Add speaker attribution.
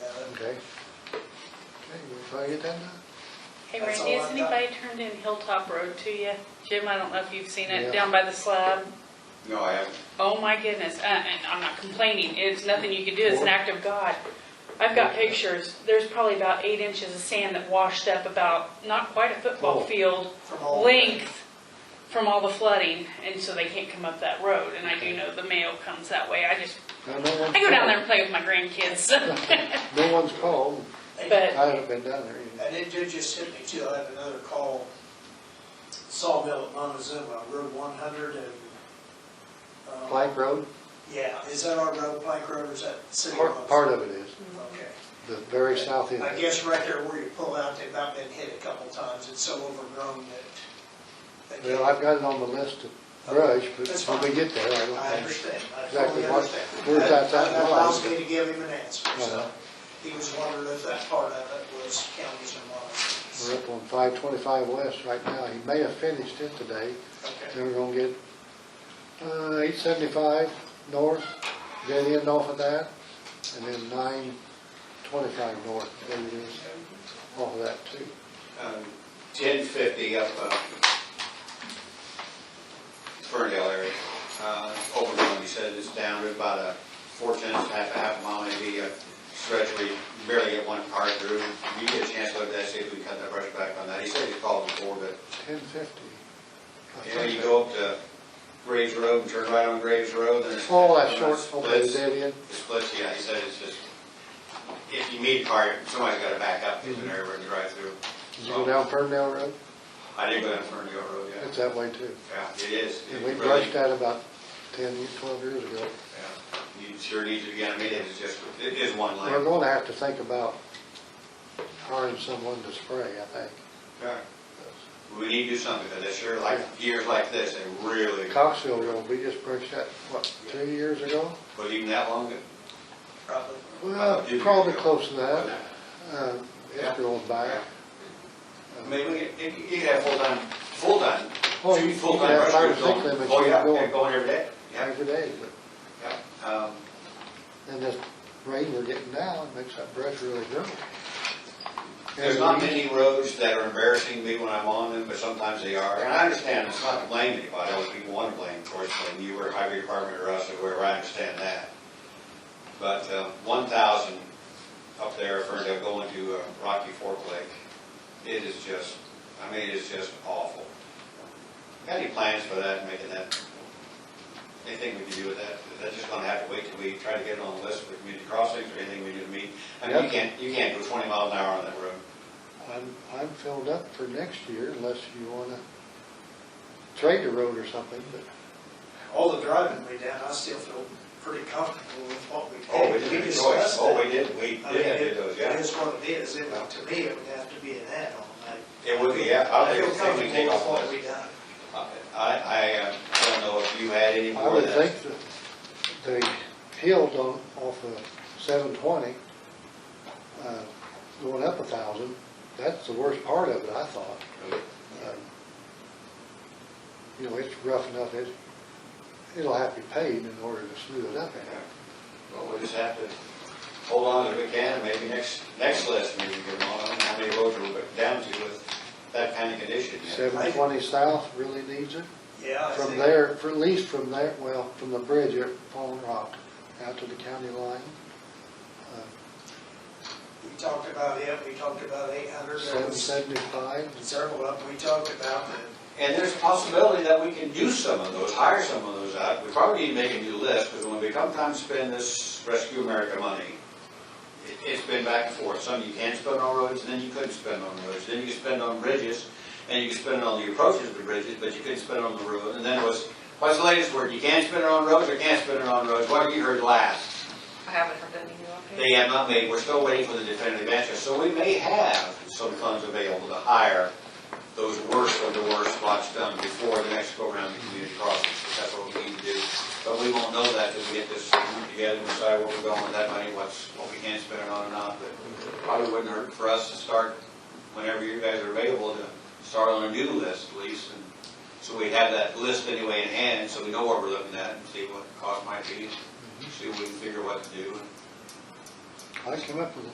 Speaker 1: Okay. Okay, you want to get that now?
Speaker 2: Hey
Speaker 3: That's
Speaker 2: Randy,
Speaker 3: all
Speaker 2: has
Speaker 3: I've got.
Speaker 2: anybody turned in Hilltop Road to you? Jim, I don't know if you've seen
Speaker 1: Yeah.
Speaker 2: it, down by the slab.
Speaker 4: No, I haven't.
Speaker 2: Oh my goodness, uh, and I'm not complaining, it's nothing you can do, it's an act of God. I've got pictures, there's probably about eight inches of sand that washed up about, not quite a football
Speaker 1: Oh.
Speaker 2: field
Speaker 3: From all-
Speaker 2: length from all the flooding, and so they can't come up that road, and I do know the mail comes that way, I just,
Speaker 1: Now, no one's
Speaker 2: I go down
Speaker 1: called.
Speaker 2: there and play with my grandkids.
Speaker 1: No one's called. I
Speaker 2: But-
Speaker 1: haven't been down there either.
Speaker 3: And it did just hit me too, I had another call, Sawmill at Montezuma, Road one hundred and. um,
Speaker 1: Plank Road,
Speaker 3: Yeah, is that our road, Pike Road, or is that city?
Speaker 1: part,
Speaker 3: roads?
Speaker 1: part of it is,
Speaker 3: Okay.
Speaker 1: the very south end.
Speaker 3: I guess right there where you pull out, they've not been hit a couple times, it's so overgrown that. they
Speaker 1: Well, I've got it on the list to brush, but
Speaker 3: That's
Speaker 1: when we
Speaker 3: fine.
Speaker 1: get there, I don't
Speaker 3: I
Speaker 1: think.
Speaker 3: understand, I
Speaker 1: Exactly
Speaker 3: totally
Speaker 1: what-
Speaker 3: understand.
Speaker 1: where's that
Speaker 3: That
Speaker 1: at?
Speaker 3: that allows me to give him an answer,
Speaker 1: Uh-huh.
Speaker 3: so he was wondering if that part of it was counties or
Speaker 1: We're
Speaker 3: not.
Speaker 1: up on five twenty-five west right now. He may have finished it today.
Speaker 3: Okay,
Speaker 1: Then we're gonna get, uh, eight seventy-five north, dead end off of that, and then nine twenty-five north, there it is, off of that too.
Speaker 4: Um, Ten fifty up, uh, Ferndale area, uh, overgrown, he said, it's down to about a four tenths, half, a half mile, maybe a stretch where you barely get one car through. If You get a chance to look at that, see if we can cut that brush back on that. He said he called before, but
Speaker 1: Ten fifty.
Speaker 4: You know, you go up to Graves Road and turn right on Graves Road, then it's.
Speaker 1: Oh, that short, okay,
Speaker 4: Splits, it
Speaker 1: dead end,
Speaker 4: splits, yeah, he said it's just, if you meet a car, somebody's gotta back up, because they're everywhere to drive through.
Speaker 1: did you go down Ferndale Road?
Speaker 4: I did go down Ferndale Road, yeah.
Speaker 1: It's that way too.
Speaker 4: Yeah, it is.
Speaker 1: And we
Speaker 4: It
Speaker 1: brushed
Speaker 4: really-
Speaker 1: that about ten, twelve years ago.
Speaker 4: yeah. You sure need to, yeah, I mean, it's just, it is one
Speaker 1: We're
Speaker 4: lane.
Speaker 1: gonna have to think about hiring someone to spray, I think.
Speaker 4: Yeah. We need to do something, because this year, like, years like this, they really,
Speaker 1: Coxville Road, we just brushed that, what, two years ago?
Speaker 4: but even that long,
Speaker 3: probably.
Speaker 1: Well,
Speaker 4: Two years
Speaker 1: probably
Speaker 4: ago.
Speaker 1: close to that. Uh, It's going back.
Speaker 4: I mean, we could- you could- you could have full-time, full-time,
Speaker 1: Oh, you-
Speaker 4: two
Speaker 1: you
Speaker 4: full-time
Speaker 1: could have five or
Speaker 4: rushers
Speaker 1: six
Speaker 4: going.
Speaker 1: limits
Speaker 4: Oh,
Speaker 1: you
Speaker 4: yeah,
Speaker 1: go.
Speaker 4: they're going every day. Yeah,
Speaker 1: Every day, but,
Speaker 4: yeah. Um,
Speaker 1: and this rain we're getting now, it makes that brush really grow.
Speaker 4: There's not many roads that are embarrassing me when I'm on them, but sometimes they are. And I understand, it's not to blame anybody, else people want to blame, of course, blame you or highway department or us or whoever, I understand that. But uh, one thousand up there, Ferndale, going to uh, Rocky Fork Lake, it is just, I mean, it is just awful. Got any plans for that, making that, anything we can do with that? Is that just gonna have to wait till we try to get it on the list for community crossings or anything we do to meet? I mean, you
Speaker 1: Yep.
Speaker 4: can't, you can't go twenty miles an hour on that road.
Speaker 1: I'm, I'm filled up for next year unless you wanna trade the road or something, but
Speaker 3: All the driving we did, I still feel pretty comfortable with what we did.
Speaker 4: Oh, we did enjoy,
Speaker 3: discussed
Speaker 4: oh,
Speaker 3: it.
Speaker 4: we did, we
Speaker 3: I mean,
Speaker 4: did
Speaker 3: it
Speaker 4: do those,
Speaker 3: it
Speaker 4: yeah.
Speaker 3: is what it is, it, would- to me, it would have to be an add-on. I-
Speaker 4: It would be, yeah, I
Speaker 3: I
Speaker 4: think
Speaker 3: feel
Speaker 4: it's something to
Speaker 3: comfortable
Speaker 4: take
Speaker 3: with
Speaker 4: off
Speaker 3: what
Speaker 4: the
Speaker 3: we
Speaker 4: list.
Speaker 3: done.
Speaker 4: I, I, uh, I don't know if you had any
Speaker 1: I
Speaker 4: more
Speaker 1: would
Speaker 4: of that.
Speaker 1: think that the hills on, off of seven twenty, uh, going up a thousand, that's the worst part of it, I thought. Um, You know, it's rough enough, it, it'll have to be paved in order to smooth it up.
Speaker 4: Well, we just have to hold on if we can, and maybe next, next list, maybe we can, on how many roads we're down to with that kind of condition. yeah.
Speaker 1: Seven twenty south really needs it.
Speaker 3: Yeah, I
Speaker 1: From
Speaker 3: think-
Speaker 1: there, for at least from there, well, from the bridge at Fallen Rock out to the county line. uh,
Speaker 3: We talked about it, we talked about eight hundred, there
Speaker 1: Seven
Speaker 3: was
Speaker 1: seventy-five,
Speaker 3: several of them, we talked about the
Speaker 4: And there's a possibility that we can use some of those, hire some of those out. We probably need to make a new list, because when we come time to spend this Rescue America money, it- it's been back and forth. Some you can spend on roads, and then you couldn't spend on roads. Then you could spend on bridges, and you could spend it on the approaches to bridges, but you couldn't spend it on the road. And then it was, what's the latest word? You can spend it on roads or can't spend it on roads? What have you heard last?
Speaker 5: I haven't heard any new updates.
Speaker 4: They have not made, we're still waiting for the definitive answer, so we may have some funds available to hire those worst of the worst spots done before the next go around the community crossings, if that's what we need to do. But we won't know that till we get this group together and decide where we're going with that money, what's, what we can spend it on or not, but probably wouldn't hurt for us to start, whenever you guys are available, to start on a new list at least, and so we have that list anyway in hand, so we know what we're looking at and see what the cost might be, see if we can figure what to do, and
Speaker 1: I came up with